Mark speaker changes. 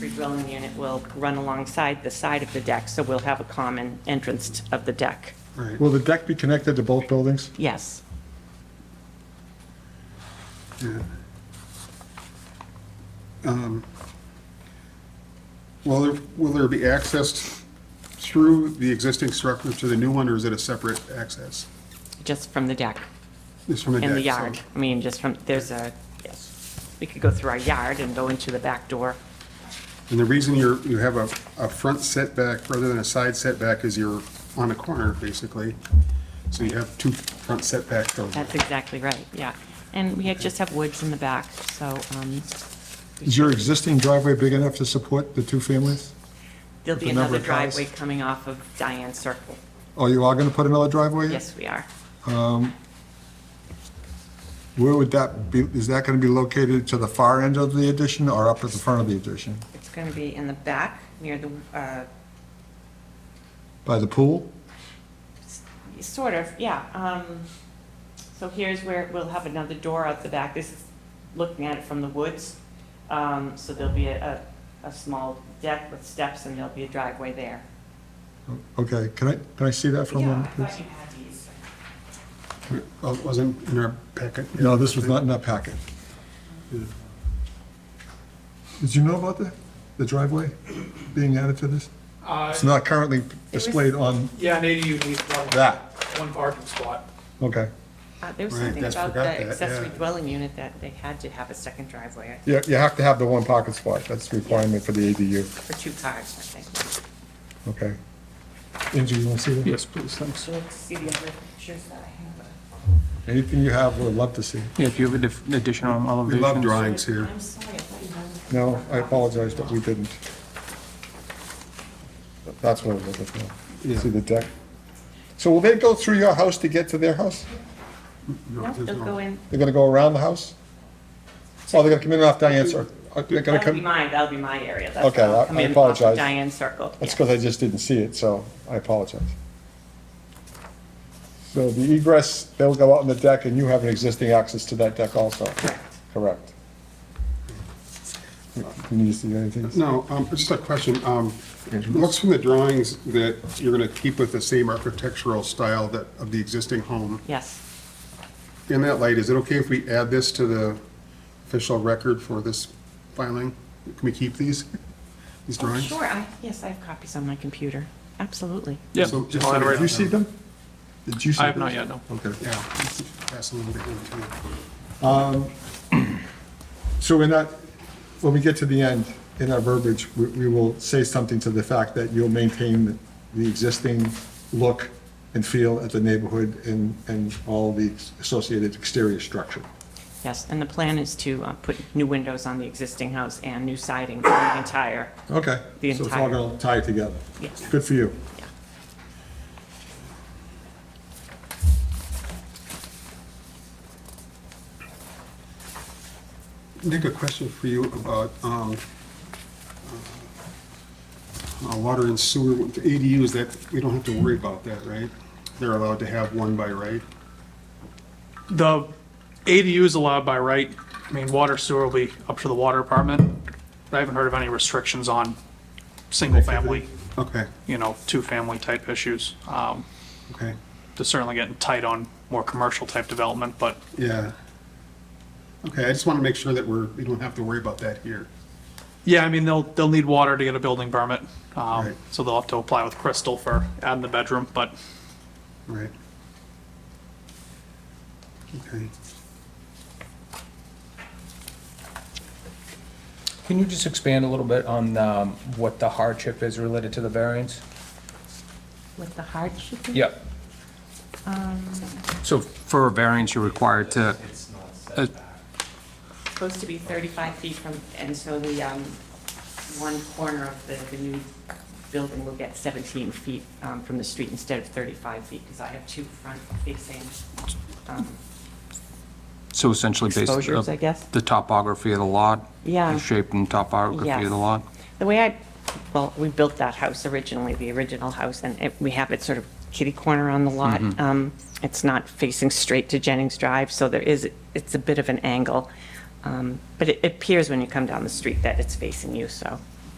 Speaker 1: dwelling unit will run alongside the side of the deck, so we'll have a common entrance of the deck.
Speaker 2: Right. Will the deck be connected to both buildings?
Speaker 1: Yes.
Speaker 2: Yeah. Um, Will there, will there be access through the existing structure to the new one, or is it a separate access?
Speaker 1: Just from the deck
Speaker 2: It's from a deck.
Speaker 1: and the
Speaker 2: so-
Speaker 1: yard. I mean, just from, there's a, yes, we could go through our yard and go into the back door.
Speaker 2: And the reason you're, you have a, a front setback rather than a side setback is you're on a corner, basically. So you have two front setbacks. though.
Speaker 1: That's exactly right, yeah. And we had- just have woods in the back, so um,
Speaker 3: Is your existing driveway big enough to support the two families?
Speaker 1: there'll be
Speaker 3: The
Speaker 1: another
Speaker 3: number of cars.
Speaker 1: driveway coming off of Diane Circle.
Speaker 2: Oh,
Speaker 3: Or you are going to put another driveway? in?
Speaker 1: Yes, we are.
Speaker 3: Where would that be, is that going to be located to the far end of the addition or up at the front of the addition?
Speaker 1: It's going to be in the back, near the, uh,
Speaker 3: By the pool?
Speaker 1: sort of, yeah. um, So here's where we'll have another door out the back. This is looking at it from the woods. Um, So there'll be a, a a small deck with steps, and there'll be a driveway there.
Speaker 3: Okay, can I, can I see that for a
Speaker 1: Yeah, I
Speaker 3: moment,
Speaker 1: thought
Speaker 3: please?
Speaker 1: you had these.
Speaker 2: Well, Oh, it wasn't in our packet.
Speaker 3: No, this was not in that packet. Did you know about the, the driveway being added to this?
Speaker 4: Uh,
Speaker 3: It's not currently displayed on
Speaker 4: yeah, an ADU needs one,
Speaker 3: that,
Speaker 4: one parking spot.
Speaker 3: okay.
Speaker 1: Uh, There was
Speaker 2: Right,
Speaker 1: something
Speaker 2: that's-
Speaker 1: about the
Speaker 2: forgot that,
Speaker 1: accessory
Speaker 2: yeah.
Speaker 1: dwelling unit that they had to have a second driveway
Speaker 3: You, you have to have the one pocket spot, that's the requirement for the ADU,
Speaker 1: for two cars, I think.
Speaker 3: okay? Angie, you want to see that?
Speaker 5: Yes, please, thanks.
Speaker 1: So let's see the other pictures that I
Speaker 3: Anything you have, we'd love to see.
Speaker 5: Yeah, if you have a dif- additional
Speaker 2: We
Speaker 5: elevation.
Speaker 2: love drawings here.
Speaker 1: have. I'm sorry, I thought you had.
Speaker 3: No, I apologize, but we didn't. That's what I was looking for. See the deck? So will they go through your house to get to their house?
Speaker 1: No,
Speaker 2: there's
Speaker 1: they'll
Speaker 2: no-
Speaker 1: go in.
Speaker 3: They're gonna go around the house? Oh, they're gonna come in off Diane's, or, are they gonna
Speaker 1: That'll be
Speaker 3: come?
Speaker 1: mine, that'll be my area. That's
Speaker 3: Okay,
Speaker 1: where I'll
Speaker 3: I-
Speaker 1: come
Speaker 3: I
Speaker 1: in off of
Speaker 3: apologize.
Speaker 1: Diane Circle.
Speaker 3: That's
Speaker 1: yeah.
Speaker 3: because I just didn't see it, so I apologize. So the egress, they'll go out on the deck, and you have an existing access to that deck also?
Speaker 1: Correct.
Speaker 3: Correct. You need to see anything?
Speaker 2: No, um, just a question. Um, it Looks from the drawings that you're going to keep with the same architectural style that, of the existing home.
Speaker 1: Yes,
Speaker 2: In that light, is it okay if we add this to the official record for this filing? Can we keep these, these drawings?
Speaker 1: sure, I, yes, I have copies on my computer, absolutely.
Speaker 5: Yeah,
Speaker 2: So, just
Speaker 5: I'll
Speaker 2: so
Speaker 5: add it right
Speaker 3: Did you see them? Did you see
Speaker 5: I have
Speaker 3: those?
Speaker 5: not yet, no.
Speaker 3: Okay.
Speaker 2: Yeah. Pass them over to him, too.
Speaker 3: So we're not, when we get to the end, in our verbiage, we- we will say something to the fact that you'll maintain the existing look and feel at the neighborhood and, and all the associated exterior structure.
Speaker 1: Yes, and the plan is to uh, put new windows on the existing house and new siding for the entire,
Speaker 3: Okay.
Speaker 1: The
Speaker 3: So it's all
Speaker 1: entire-
Speaker 3: going to tie together.
Speaker 1: Yes.
Speaker 3: Good for you.
Speaker 1: yeah.
Speaker 2: Nick, a question for you about um, uh, water and sewer, with ADUs, that, we don't have to worry about that, right? They're allowed to have one by right?
Speaker 4: The ADU is allowed by right. I mean, water sewer will be up to the water department. I haven't heard of any restrictions on single family,
Speaker 2: Okay,
Speaker 4: you know, two family type issues. Um,
Speaker 2: okay,
Speaker 4: they're certainly getting tight on more commercial type development, but
Speaker 2: yeah. Okay, I just want to make sure that we're, we don't have to worry about that here.
Speaker 4: yeah, I mean, they'll, they'll need water to get a building permit. Um,
Speaker 2: Right.
Speaker 4: so they'll have to apply with Crystal for adding the bedroom, but
Speaker 2: Right. Okay.
Speaker 6: Can you just expand a little bit on um, what the hardship is related to the variance?
Speaker 1: With the hardship? in-
Speaker 6: Yep.
Speaker 1: Um,
Speaker 6: So for a variance, you're required to, uh,
Speaker 1: Supposed to be 35 feet from, and so the, um, one corner of the, the new building will get 17 feet um, from the street instead of 35 feet, because I have two front facing um,
Speaker 6: so essentially based
Speaker 1: exposures, I
Speaker 6: on
Speaker 1: guess.
Speaker 6: the topography of the lot?
Speaker 1: Yeah.
Speaker 6: The shape and topography
Speaker 1: Yes.
Speaker 6: of the lot?
Speaker 1: The way I, well, we built that house originally, the original house, and it- we have it sort of kitty corner on the lot. Um, It's not facing straight to Jennings Drive, so there is, it's a bit of an angle. Um, But it appears when you come down the street that it's facing you, so